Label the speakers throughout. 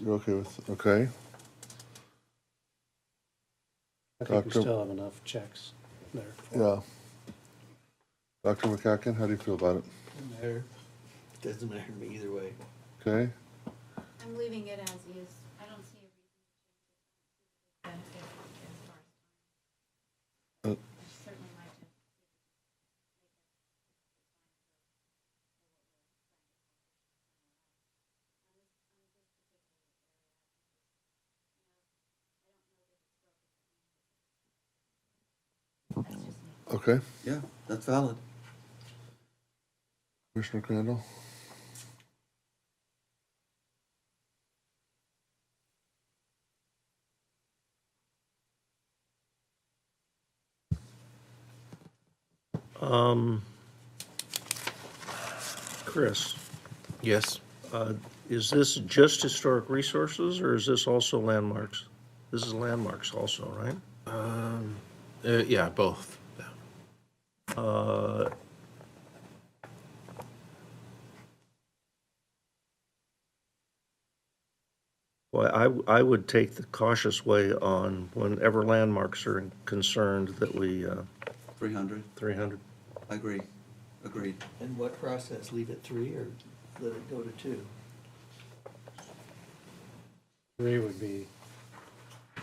Speaker 1: you're okay with, okay.
Speaker 2: I think we
Speaker 1: Doctor-
Speaker 2: still have enough checks there. for-
Speaker 1: Yeah. Dr. McCacken, how do you feel about it?
Speaker 3: Doesn't matter. Doesn't matter to me either way.
Speaker 1: Okay,
Speaker 4: I'm leaving it as is. I don't see a reason. to change it.
Speaker 1: Uh.
Speaker 4: Benefit as far as- I certainly like to-
Speaker 1: okay.
Speaker 3: Yeah, that's valid.
Speaker 1: Commissioner Crandall?
Speaker 5: Um, Chris,
Speaker 6: Yes.
Speaker 5: uh, is this just historic resources or is this also landmarks? This is landmarks also, right?
Speaker 6: Uh, yeah, both. Yeah.
Speaker 5: Uh, Well, I, w- I would take the cautious way on whenever landmarks are concerned that we, uh,
Speaker 3: 300.
Speaker 5: 300.
Speaker 3: I agree. Agreed.
Speaker 7: In what process, leave it three or let it go to two?
Speaker 2: Three would be the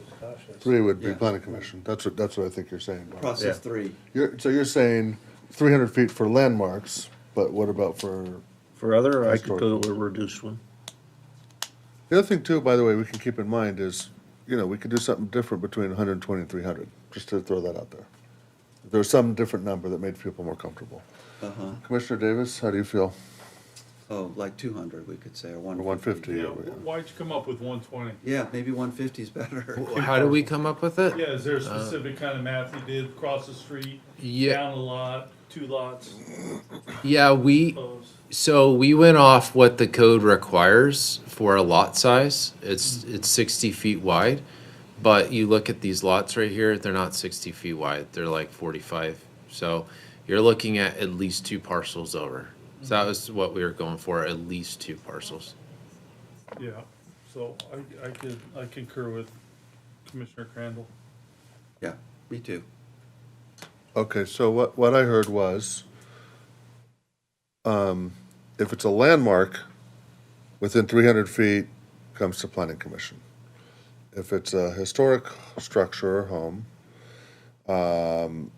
Speaker 2: most cautious.
Speaker 1: Three would be
Speaker 3: Yeah.
Speaker 1: planning commission. That's what, that's what I think you're saying. Bob.
Speaker 3: Process
Speaker 5: Yeah.
Speaker 3: three.
Speaker 1: You're, so you're saying three hundred feet for landmarks, but what about for,
Speaker 5: For other, I could go to a reduced one.
Speaker 1: the other thing too, by the way, we can keep in mind is, you know, we could do something different between 120 and 300. just to throw that out there. There's some different number that made people more comfortable.
Speaker 3: Uh-huh.
Speaker 1: Commissioner Davis, how do you feel?
Speaker 3: Oh, like 200, we could say, or
Speaker 1: Or
Speaker 3: 150.
Speaker 1: one fifty?
Speaker 8: Yeah, wh- why'd you come up with one twenty?
Speaker 3: Yeah, maybe 150 is better.
Speaker 6: How do we come up with it?
Speaker 8: Yeah, is there a specific kind of math you did, across the street,
Speaker 6: Uh, Yeah,
Speaker 8: down a lot, two lots,
Speaker 6: yeah, we,
Speaker 8: close?
Speaker 6: so we went off what the code requires for a lot size. It's, it's sixty feet wide, but you look at these lots right here, they're not sixty feet wide, they're like forty-five. So you're looking at at least two parcels over. So that was what we were going for, at least two parcels.
Speaker 8: Yeah, so I, I could, I concur with Commissioner Crandall.
Speaker 3: Yeah, me too.
Speaker 1: Okay, so what, what I heard was, um, if it's a landmark, within three hundred feet comes to planning commission. If it's a historic structure or home, um,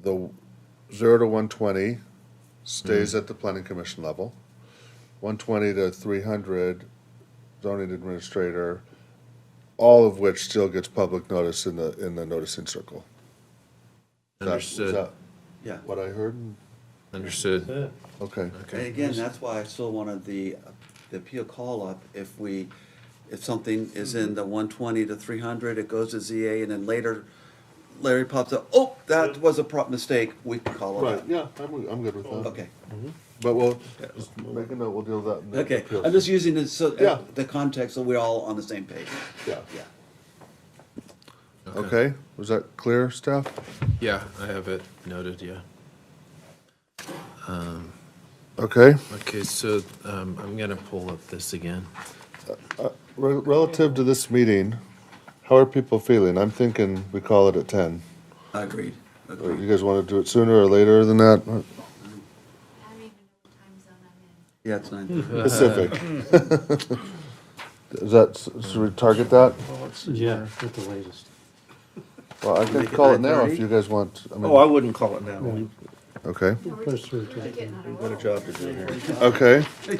Speaker 1: the zero to one twenty stays at the planning commission level. One twenty to three hundred zoning administrator, all of which still gets public notice in the, in the noticing circle. Is that- is
Speaker 6: Understood.
Speaker 1: that-
Speaker 3: Yeah.
Speaker 1: what I heard?
Speaker 6: Understood.
Speaker 2: That's it.
Speaker 1: Okay,
Speaker 3: And
Speaker 6: Okay.
Speaker 3: again, that's why I still wanted the, the appeal call-up. If we, if something is in the 120 to 300, it goes to ZA, and then later Larry pops up, oh, that was a prop mistake, we can call it
Speaker 1: right,
Speaker 3: up.
Speaker 1: yeah, I'm, I'm good with that.
Speaker 3: Okay.
Speaker 1: But we'll, just make a note, we'll deal with that. in the
Speaker 3: Okay,
Speaker 1: appeals.
Speaker 3: I'm just using it so,
Speaker 1: Yeah.
Speaker 3: the context, so we're all on the same page.
Speaker 1: Yeah,
Speaker 3: Yeah.
Speaker 1: okay, was that clear, staff?
Speaker 6: Yeah, I have it noted, yeah.
Speaker 1: Okay,
Speaker 6: Okay, so, um, I'm gonna pull up this again.
Speaker 1: Re- relative to this meeting, how are people feeling? I'm thinking we call it at ten.
Speaker 3: I agreed.
Speaker 1: Uh, You
Speaker 3: Agreed.
Speaker 1: guys wanna do it sooner or later than that?
Speaker 4: I don't even know what time zone I'm in.
Speaker 3: Yeah, it's nine.
Speaker 1: Pacific. Is that, should we target that?
Speaker 2: Yeah, at the latest.
Speaker 1: Well, I can
Speaker 3: Make it
Speaker 1: call it now if
Speaker 3: 9:30?
Speaker 1: you guys want, I
Speaker 5: Oh, I
Speaker 1: mean,
Speaker 5: wouldn't call it now. We-
Speaker 1: okay,
Speaker 2: We'll put it through to-
Speaker 4: Really getting on a
Speaker 5: What a
Speaker 4: roll.
Speaker 5: job to do here.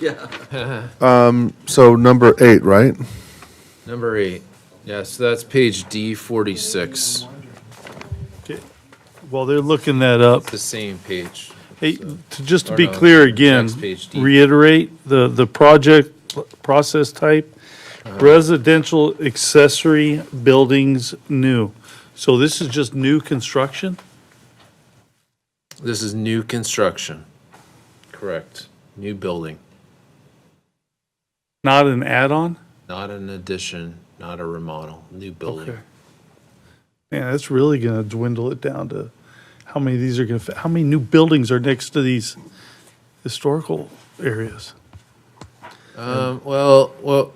Speaker 1: okay, Um,
Speaker 3: Yeah.
Speaker 1: so number eight, right?
Speaker 6: Number eight. Yeah, so that's page D forty-six.
Speaker 8: While they're looking that up,
Speaker 6: The same page.
Speaker 8: Hey, to, just to
Speaker 6: Or
Speaker 8: be
Speaker 6: no,
Speaker 8: clear again,
Speaker 6: next page, D.
Speaker 8: reiterate, the, the project pl- process type,
Speaker 6: Uh-huh.
Speaker 8: residential accessory buildings new. So this is just new construction?
Speaker 6: This is new construction. Correct. New building,
Speaker 8: Not an add-on?
Speaker 6: not an addition, not a remodel, new building.
Speaker 8: Okay. Man, that's really gonna dwindle it down to how many of these are gonna, fit- how many new buildings are next to these historical areas?
Speaker 6: Um, well, well,